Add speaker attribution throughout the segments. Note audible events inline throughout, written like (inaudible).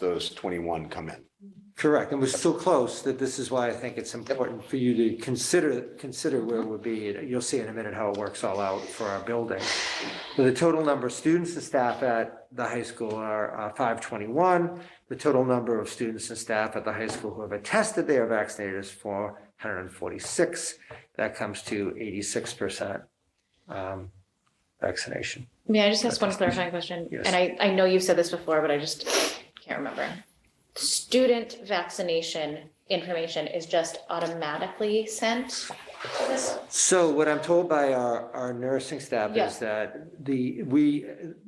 Speaker 1: those twenty-one come in.
Speaker 2: Correct, and we're still close, that this is why I think it's important for you to consider, consider where we'll be. You'll see in a minute how it works all out for our building. So the total number of students and staff at the high school are uh, five twenty-one. The total number of students and staff at the high school who have attested they are vaccinated is four hundred and forty-six. That comes to eighty-six percent um, vaccination.
Speaker 3: May I just ask one clarifying question?
Speaker 2: Yes.
Speaker 3: And I, I know you've said this before, but I just can't remember. Student vaccination information is just automatically sent to this?
Speaker 2: So what I'm told by our, our nursing staff
Speaker 3: Yeah.
Speaker 2: is that the, we,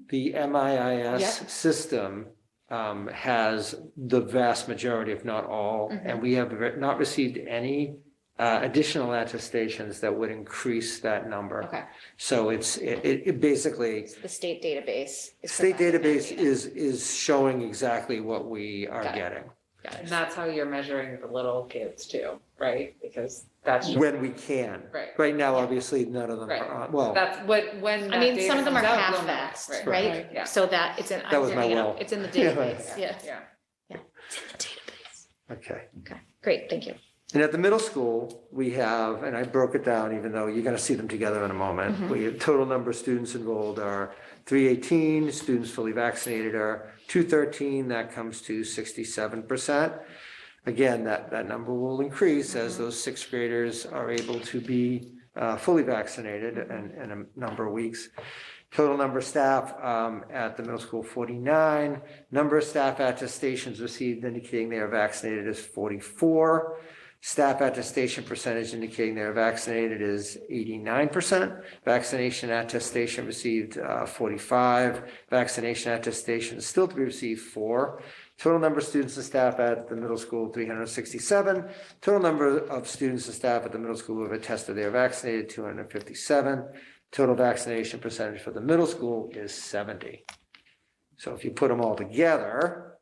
Speaker 2: the MIIS
Speaker 3: Yeah.
Speaker 2: system um, has the vast majority, if not all,
Speaker 3: Mm-hmm.
Speaker 2: and we have re- not received any uh, additional attestations that would increase that number.
Speaker 3: Okay,
Speaker 2: So it's, it, it it basically,
Speaker 3: so the state datab's. is
Speaker 2: state
Speaker 3: providing that
Speaker 2: database
Speaker 3: data.
Speaker 2: is, is showing exactly what we are
Speaker 3: Got it.
Speaker 2: getting
Speaker 3: Got
Speaker 4: And
Speaker 3: it.
Speaker 4: that's how you're measuring the little kids too, right? Because that's just,
Speaker 2: when we can.
Speaker 4: Right.
Speaker 2: Right now, obviously, none of them are,
Speaker 4: Right.
Speaker 2: on- well.
Speaker 4: that's what, when
Speaker 3: I
Speaker 4: that
Speaker 3: mean,
Speaker 4: data
Speaker 3: some of them are
Speaker 4: comes out,
Speaker 3: half
Speaker 4: we'll know,
Speaker 3: vaxxed,
Speaker 2: Right.
Speaker 3: right?
Speaker 4: Yeah.
Speaker 3: So that it's in,
Speaker 2: That was my
Speaker 3: you know,
Speaker 2: well.
Speaker 3: it's in the
Speaker 2: (laughs) Yeah.
Speaker 3: database, yeah.
Speaker 4: Yeah.
Speaker 2: Okay.
Speaker 3: Okay, great, thank you.
Speaker 2: And at the middle school, we have, and I broke it down, even though you're gonna see them together in a moment. We, total number of students enrolled are three eighteen, students fully vaccinated are two thirteen, that comes to sixty-seven percent. Again, that, that number will increase as those sixth graders are able to be, uh, fully vaccinated in, in a number of weeks. Total number of staff um, at the middle school, 49. Number of staff attestations received indicating they are vaccinated is 44. Staff attestation percentage indicating they are vaccinated is 89%. Vaccination attestation received uh, 45. Vaccination attestation is still to be received, 4. Total number of students and staff at the middle school, 367. Total number of students and staff at the middle school who have attested they are vaccinated, 257. Total vaccination percentage for the middle school is 70. So if you put them all together,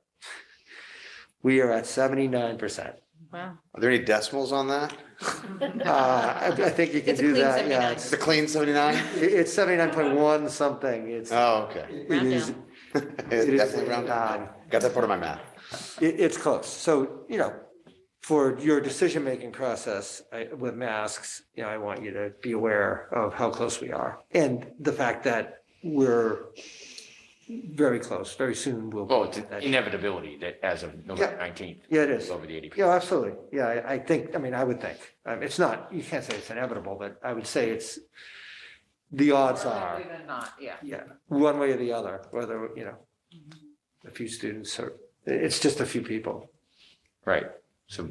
Speaker 2: we are at 79%.
Speaker 3: Wow.
Speaker 1: Are there any decimals on that?
Speaker 2: Uh, I I think you can
Speaker 3: It's a
Speaker 2: do
Speaker 3: clean
Speaker 2: that,
Speaker 3: 79.
Speaker 2: yeah.
Speaker 1: Is
Speaker 2: It's
Speaker 1: it a clean seventy-nine?
Speaker 2: it- it's 79.1 something. It's, it
Speaker 1: Oh, okay.
Speaker 3: Round
Speaker 2: is,
Speaker 3: down.
Speaker 1: (laughs)
Speaker 2: it
Speaker 1: It's
Speaker 2: is,
Speaker 1: Definitely round
Speaker 2: um,
Speaker 1: down. Got that part of my math.
Speaker 2: it- it's close. So, you know, for your decision-making process I- with masks, you know, I want you to be aware of how close we are. And the fact that we're very close, very soon we'll. be
Speaker 5: Well, Oh, it's
Speaker 2: that-
Speaker 5: inevitability that as of
Speaker 2: Yeah.
Speaker 5: November nineteenth,
Speaker 2: Yeah, it
Speaker 5: it's
Speaker 2: is.
Speaker 5: over the eighty.
Speaker 2: Yeah, absolutely. Yeah, I, I think, I mean, I would think, um, it's not, you can't say it's inevitable, but I would say it's, the odds
Speaker 4: More
Speaker 2: are,
Speaker 4: likely than not, yeah.
Speaker 2: yeah, one way or the other, whether, you know, a few students or, it's just a few people.
Speaker 5: Right. So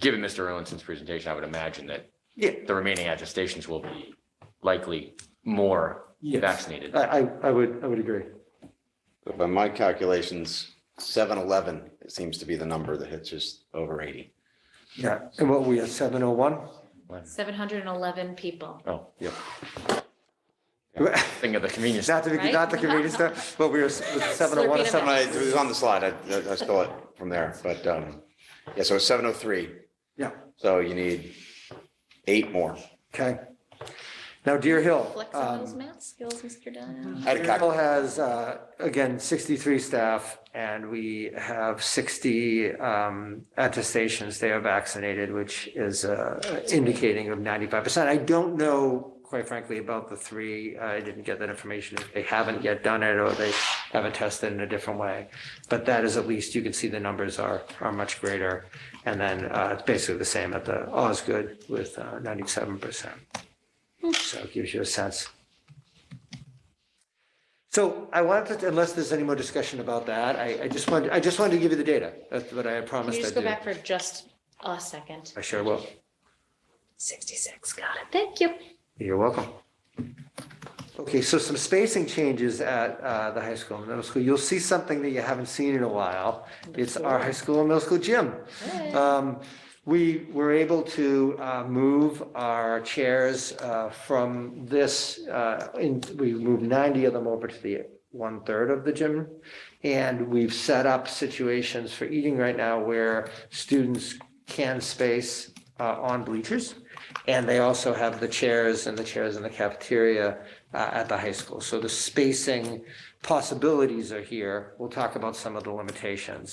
Speaker 5: given Mr. Owenson's presentation, I would imagine that
Speaker 2: Yeah.
Speaker 5: the remaining attestations will be likely more
Speaker 2: Yes.
Speaker 5: vaccinated.
Speaker 2: I, I, I would, I would agree.
Speaker 1: By my calculations, seven eleven seems to be the number that hits just over eighty.
Speaker 2: Yeah, and what, we are seven oh one?
Speaker 3: Seven hundred and eleven people.
Speaker 5: Oh, yeah. Thing of the convenience.
Speaker 2: (laughs) Not the,
Speaker 3: Right?
Speaker 2: not the convenience store, but we were seven oh one or
Speaker 3: (laughs) Slurping it
Speaker 2: seven.
Speaker 1: When I- It was on the slide. I, I stole it from there, but, um, yeah, so it's seven oh three.
Speaker 2: Yeah,
Speaker 1: So you need eight more.
Speaker 2: okay. Now Deer Hill.
Speaker 3: Flex on
Speaker 2: um,
Speaker 3: those math skills, Mr. Dunn.
Speaker 1: I had a
Speaker 2: Carroll
Speaker 1: calc-
Speaker 2: has, uh, again, 63 staff, and we have 60 um, attestations they are vaccinated, which is uh, indicating of 95%. I don't know, quite frankly, about the three. I didn't get that information. If they haven't yet done it, or they haven't tested in a different way. But that is at least, you can see the numbers are, are much greater. And then uh, it's basically the same at the Osgood with uh, 97%. So it gives you a sense. So I wanted, to- unless there's any more discussion about that, I, I just wanted, I just wanted to give you the data. That's what I had
Speaker 3: Can
Speaker 2: promised
Speaker 3: you
Speaker 2: I'd
Speaker 3: just
Speaker 2: do.
Speaker 3: go back for just a second?
Speaker 2: I sure will.
Speaker 3: Sixty-six, got it, thank you.
Speaker 2: You're welcome. Okay, so some spacing changes at uh, the high school and middle school. You'll see something that you haven't seen in a while. It's our high school and middle school gym. Um, We were able to uh, move our chairs uh, from this, uh, in- we moved 90 of them over to the one-third of the gym. And we've set up situations for eating right now where students can space uh, on bleachers. And they also have the chairs and the chairs in the cafeteria uh, at the high school. So the spacing possibilities are here. We'll talk about some of the limitations